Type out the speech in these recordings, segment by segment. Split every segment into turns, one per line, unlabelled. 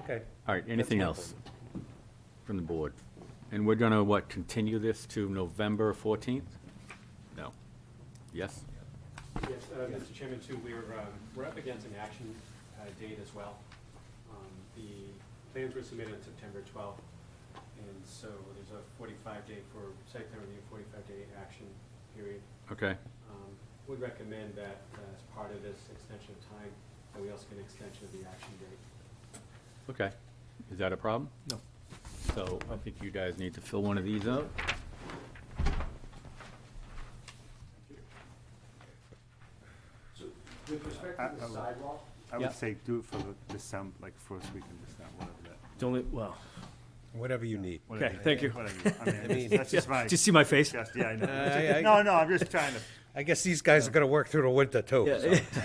Okay.
All right, anything
my
else from the board? And we're gonna, what, continue this to November 14th? No. Yes?
Yes, uh, Mr. Chairman, too, we're, um, we're up against an action uh, date as well. Um, The plans were submitted on September 12th, and so there's a 45-day for site plan review, 45-day action period.
Okay,
Um, Would recommend that uh, as part of this extension of time, that we also get an extension of the action date.
okay. Is that a problem? No. So I think you guys need to fill one of these out.
With
to
respect
the I- I would-
sidewalk,
I
Yeah.
would say do it for the December, like first week in December, whatever that.
It's only, well,
Whatever you need.
whatever
Okay,
that-
thank you.
whatever you- I mean,
mean-
that's just my,
just see my face.
just, yeah, I
I-
know.
I-
No, no, I'm just trying to,
I guess these guys are gonna work through the winter too. so.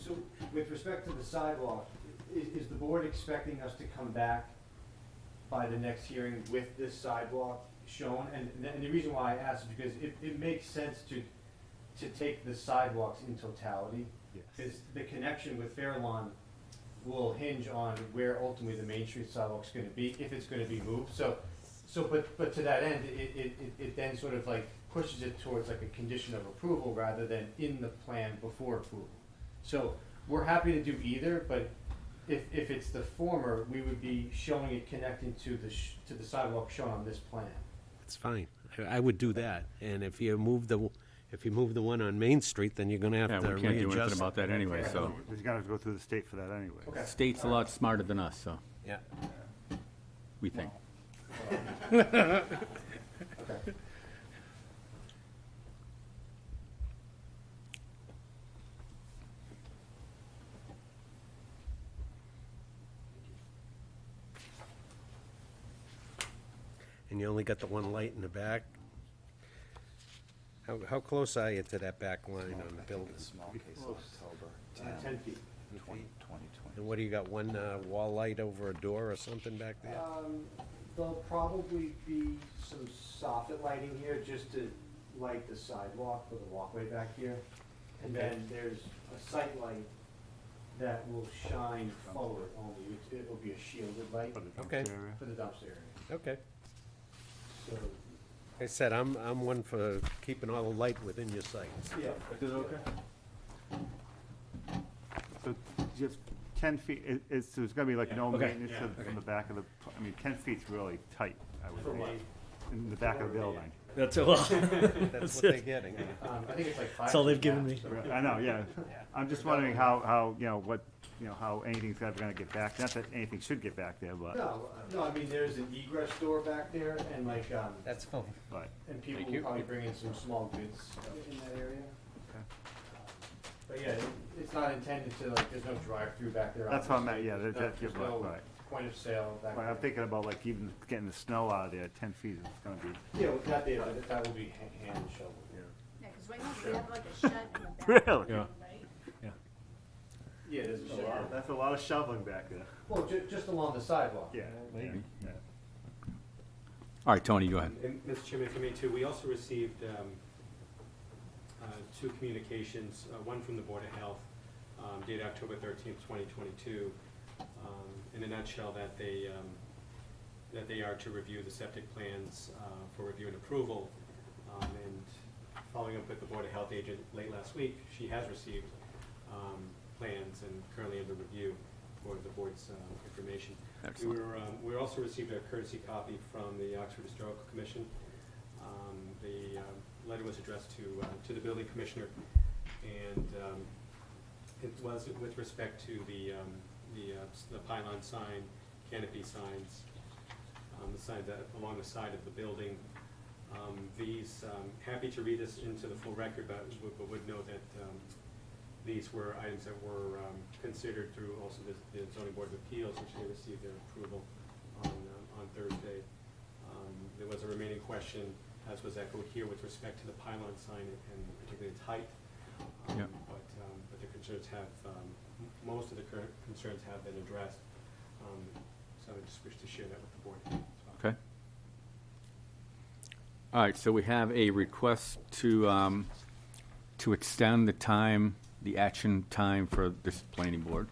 So with respect to the sidewalk, i- is the board expecting us to come back by the next hearing with this sidewalk shown? And, and the reason why I ask is because it, it makes sense to, to take the sidewalks in totality.
Yes.
Because the connection with Fair Lawn will hinge on where ultimately the Main Street sidewalk's gonna be, if it's gonna be moved. So, so, but, but to that end, it, it, it- it then sort of like pushes it towards like a condition of approval rather than in the plan before approval. So we're happy to do either, but if, if it's the former, we would be showing it connecting to the, sh- to the sidewalk shown on this plan.
It's fine. I, I would do that. And if you move the, if you move the one on Main Street, then you're gonna have
Yeah,
to
we can't do anything
readjust.
about that anyway, so.
we gotta go through the state for that anyway.
Okay.
State's a lot smarter than us, so,
Yeah.
we think.
Okay.
And you only got the one light in the back. How, how close are you to that back line on the building?
Small case October,
Uh, ten feet.
twenty, twenty, twenty.
And what, do you got one, uh, wall light over a door or something back there?
Um, there'll probably be some soffit lighting here just to light the sidewalk for the walkway back here. And
Okay.
then there's a sight light that will shine forward only, It- it will be a shielded light
For the dumpster
Okay.
area.
for the dumpster area.
Uh.
Okay.
So,
Like I said, I'm, I'm one for keeping all the light within your sight.
yeah. Is it okay?
So just ten feet, it, it's, there's gonna be like no maintenance of- from the back of the, pl- I mean, ten feet's really tight, I would
For what?
think, in the back of the building.
That's a lot.
That's
That's
what they're
it.
getting.
Um, I think it's like five.
That's all they've
feet
given
back,
me.
so-
Re- I know, yeah. I'm just wondering how, how, you know, what, you know, how anything's ever gonna get back, not that anything should get back there, but,
No, uh, no, I mean, there's an egress door back there and like, um,
That's fine.
but,
and people
Thank
will
you.
probably bring in some small goods in that area.
Okay.
But yeah, it- it's not intended to, like, there's no drive-through back there.
That's what I meant,
obviously.
yeah,
There's
that-
no-
that- yeah,
There's no
right,
point of sale back
but I'm
there.
thinking about like even getting the snow out of there, ten feet is gonna be.
Yeah, well, that there, but that will be ha- hand shoveled.
Yeah, because right now we have like a shed in the back.
Really?
Right?
Yeah, there's a lot.
That's a lot of shoveling back there.
uh, Well, ju- just along the sidewalk.
Yeah.
Maybe.
yeah.
All right, Tony, go ahead.
And Mr. Chairman, if I may too, we also received um, uh, two communications, uh, one from the Board of Health um, dated October thirteenth, twenty twenty-two. um, In a nutshell, that they, um, that they are to review the septic plans uh, for review and approval. Um, And following up with the Board of Health agent late last week, she has received um, plans and currently under review for the board's um, information. We
Excellent.
were, um, we also received a courtesy copy from the Oxford Historical Commission. Um, The um, letter was addressed to, uh, to the building commissioner, and um, it was with respect to the, um, the uh, s- the pylon sign, canopy signs, um, the signs that along the side of the building. Um, These, um, happy to read this into the full record, but would- but would note that um, these were items that were um, considered through also the- the zoning board of appeals, which they received their approval on, um, on Thursday. Um, There was a remaining question, as was echoed here, with respect to the pylon sign and particularly its height. Um,
Yep.
But, um, but the concerns have, um, m- most of the current concerns have been addressed. Um, So I just wish to share that with the board. as well.
Okay. All right, so we have a request to, um, to extend the time, the action time for this planning board.